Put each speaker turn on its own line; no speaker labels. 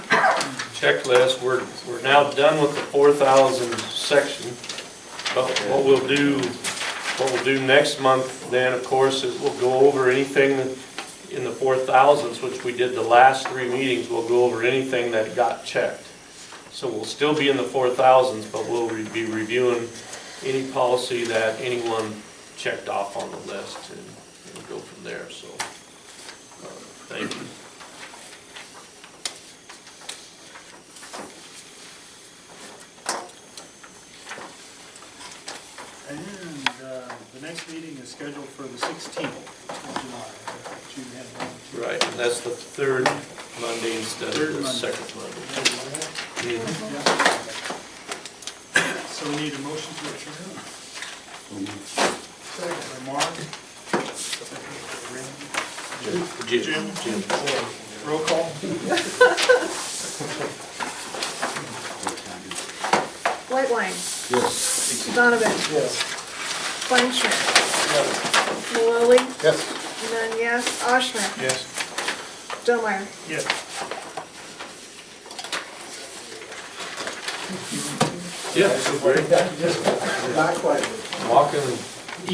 checklist, we're, we're now done with the four thousand section. But what we'll do, what we'll do next month then, of course, is we'll go over anything that- in the four thousands, which we did the last three meetings, we'll go over anything that got checked. So we'll still be in the four thousands, but we'll re- be reviewing any policy that anyone checked off on the list and and go from there, so. uh, Thank you.
And uh, the next meeting is scheduled for the 16th of July. which you had on the-
Right, and that's the third Monday instead
Third
of the
Monday.
second Monday.
Mm-hmm. Yeah. So we need a motion to adjourn. Second by Mark. Second
Jim, Jim.
by Randy. Roll call.
Whitewine. Yes. Donovan. Yes. Fleischman. Maloli. Yes. Nun, yes. Ashner.
Yes.
Delmeyer.
Yes.
Yeah, so great.
Not quite.
Walking and